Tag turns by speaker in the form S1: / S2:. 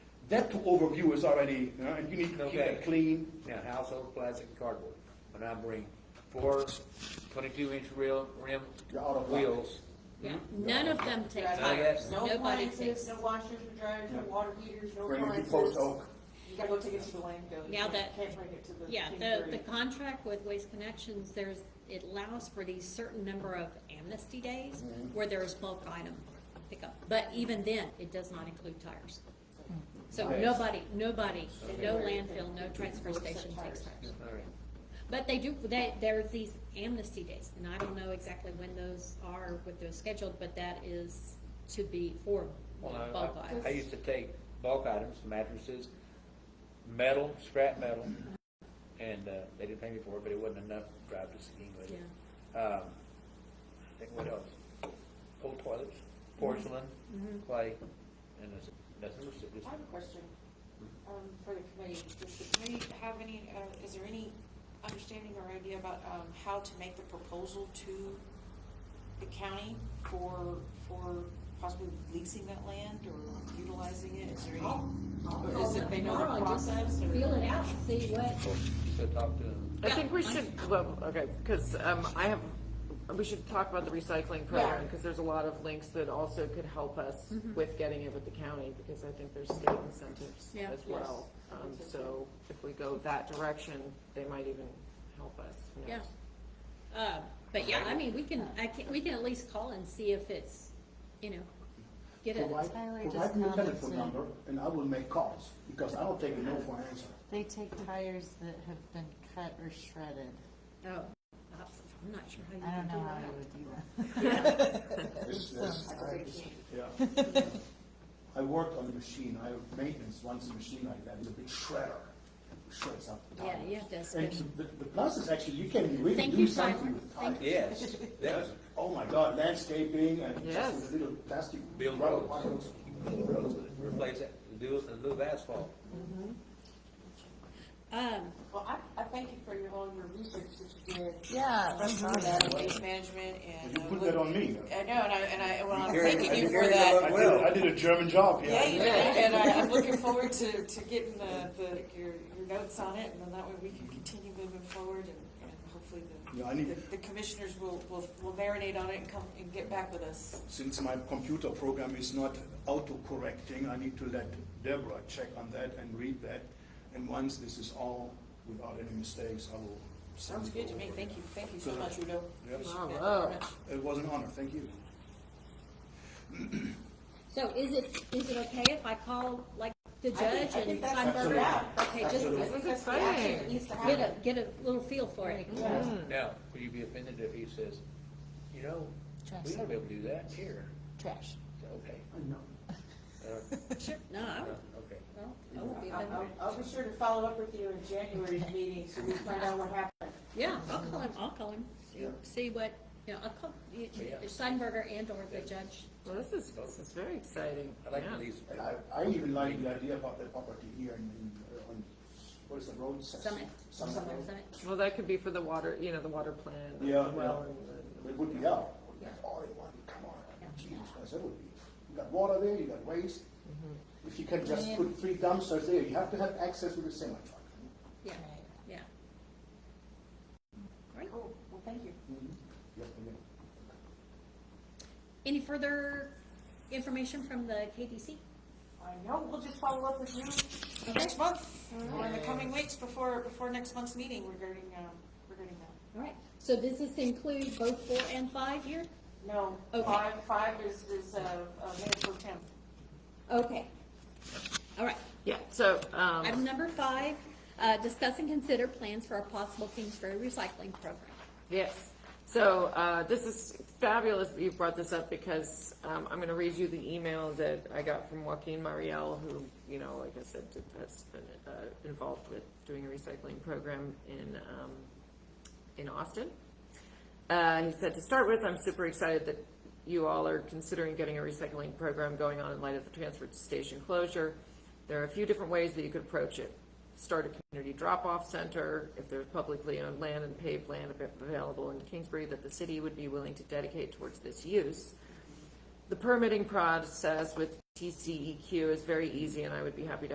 S1: That overview is already, you know, and you need to keep
S2: Okay.
S1: it clean.
S2: Now, household plastic and cardboard, when I bring four twenty-two inch real rim
S1: You're out of luck.
S2: wheels.
S3: None of them take
S4: Right.
S3: tires,
S4: Mm-hmm. No
S3: nobody
S4: appliances,
S3: takes.
S4: no washers, or dryers, no
S1: Yeah.
S4: water heaters, no
S1: Bring it to
S4: appliances.
S1: close oak.
S4: You gotta go take it to the landfill. You
S3: Now
S4: can't-
S3: that-
S4: Can't bring it to the.
S3: Yeah, the,
S4: Kingsbury.
S3: the contract with Waste Connections, there's, it allows for these certain number of amnesty days
S4: Mm-hmm.
S3: where there is bulk item pickup, but even then, it does not include tires. So
S1: Nice.
S3: nobody, nobody,
S4: Okay.
S3: no landfill, no transfer station takes
S4: Tires.
S3: tires.
S2: All right.
S3: But they do, they, there's these amnesty days, and I don't know exactly when those are, what they're scheduled, but that is to be for
S2: Well, I-
S3: bulk
S2: I-
S3: items.
S2: I used to take bulk items, mattresses, metal, scrap metal, and, uh, they didn't pay me for it, but it wasn't enough to drive to Seguin with it. Um, I think what else? Old toilets, porcelain,
S3: Mm-hmm.
S2: clay, and that's, nothing was, it
S4: I have a question, um, for the committee. Does the committee have any, uh, is there any understanding or idea about, um, how to make the proposal to the county for, for possibly leasing that land or utilizing it? Is there any? Is it, they know the process or?
S3: Feel it out, and see what,
S2: so talk to them.
S5: I think we should, well, okay, because, um, I have, we should talk about the recycling program,
S4: Yeah.
S5: because there's a lot of links that also could help us
S3: Mm-hmm.
S5: with getting it with the county, because I think there's state incentives
S3: Yeah.
S5: as well. Um, so if we go that direction, they might even help us. who
S3: yeah.
S5: knows?
S3: Uh, but yeah, I mean, we can, I can, we can at least call and see if it's, you know, get it.
S1: Provide,
S6: Tyler
S1: provide
S6: just
S1: me a telephone
S6: commented.
S1: number and I will make calls, because I don't take a no for an answer.
S6: They take tires that have been cut or shredded.
S3: Oh, I'm not sure how you
S6: I
S3: can do
S6: don't know how
S3: that.
S6: you would do that.
S1: It's- it's-
S6: Sounds
S1: I just- yeah. I worked on a machine, I have maintenance, runs a machine like that, it's a big shredder, shreds up the
S3: Yeah,
S1: tires.
S3: you have to
S1: And
S3: spend-
S1: the, the plus is actually, you can really
S3: Thank
S1: do
S3: you,
S1: something
S3: Tyler.
S1: with tires.
S3: Thank
S2: Yes,
S1: Yes.
S2: that's
S1: Oh my God, landscaping and
S5: Yes.
S1: just a little plastic.
S2: build
S1: rubber
S2: roads,
S1: bottles.
S2: build roads, with it, replace it, do it, and move asphalt.
S3: Um,
S4: Well, I, I thank you for your, all your research that you did.
S6: Yeah,
S4: On that waste management and.
S1: You
S4: uh,
S1: put
S4: look-
S1: that on me.
S4: I know, and I, and I, well, I'm
S2: You're carrying-
S4: thanking you
S2: you're
S4: for
S2: carrying the
S4: that.
S2: load.
S1: I did, I did a German job,
S4: Yeah,
S1: yeah.
S4: you did, and I, I'm looking forward to, to getting the, the, your, your notes on it, and then that way we can continue moving forward and, and hopefully
S1: Yeah, I
S4: the,
S1: need-
S4: the- the commissioners will, will, will marinate on it and come and get back with us.
S1: Since my computer program is not auto-correcting, I need to let Deborah check on that and read that. And once this is all without any mistakes, I will. send
S4: Sounds
S1: it
S4: good to
S1: over
S4: me, thank you,
S1: again.
S4: thank you so much, Udo.
S1: Yes.
S4: Appreciate that very
S5: Bravo.
S4: much.
S1: It was an honor, thank you.
S3: so is it, is it okay if I call, like, the
S4: I think-
S3: judge
S4: I think
S3: and
S4: that's-
S3: Steinberger?
S4: yeah.
S3: Okay, just
S4: I think that's the action that needs to
S3: get
S4: happen.
S3: a, get a little feel for it.
S2: Now, would you be offended if he says, you know, we ought to be able to do that here?
S6: Trash.
S2: Okay.
S1: No.
S2: Uh,
S3: Sure, no, I
S2: uh,
S3: won't,
S2: Okay.
S3: I won't- I won't be
S4: I'll,
S3: offended.
S4: I'll- I'll be sure to follow up with you in January's meeting, so we find out what happened.
S3: Yeah, I'll call him, I'll call him,
S1: Yeah.
S3: see what, you know, I'll call y-
S2: Yeah.
S3: Steinberger and or the judge.
S5: Well, this is, this is very exciting.
S2: I like
S5: Yeah.
S2: to leave.
S1: And I, I even like the idea about the property here in, in, uh, on, what is the road?
S3: Summit.
S1: Summit Road.
S3: Summit.
S5: Well, that could be for the water, you know, the water plan. and
S1: Yeah,
S5: the well
S1: yeah.
S5: and the-
S1: It would be out, all in one, come on, Jesus Christ, that would be, you got water there, you got waste.
S4: Mm-hmm.
S1: If you can just
S6: Yeah.
S1: put three dumpsters there, you have to have access with a semi truck.
S3: Yeah, yeah. Great.
S4: Cool, Oh, well, thank you.
S1: Mm-hmm. Yep, yep.
S3: Any further information from the KDC?
S4: I know, we'll just follow up with you next month, or in the coming weeks before, before next month's meeting regarding, um, regarding that.
S3: All right, so does this include both four and five here?
S4: No,
S3: Okay.
S4: five, five is, is, uh, uh, Mayor Pro Tem.
S3: Okay. All right,
S5: Yeah, so, um.
S3: item number five, uh, discuss and consider plans for a possible Kingsbury recycling program.
S5: Yes. So uh, this is fabulous that you brought this up because um, I'm going to read you the email that I got from Joaquin Mariel, who, you know, like I said, has been uh, involved with doing a recycling program in, um, in Austin. Uh, he said, to start with, I'm super excited that you all are considering getting a recycling program going on in light of the transfer station closure. There are a few different ways that you could approach it. Start a community drop-off center, if there's publicly owned land and paved land av- available in Kingsbury that the city would be willing to dedicate towards this use. The permitting process with TCEQ is E very easy, and I would be happy to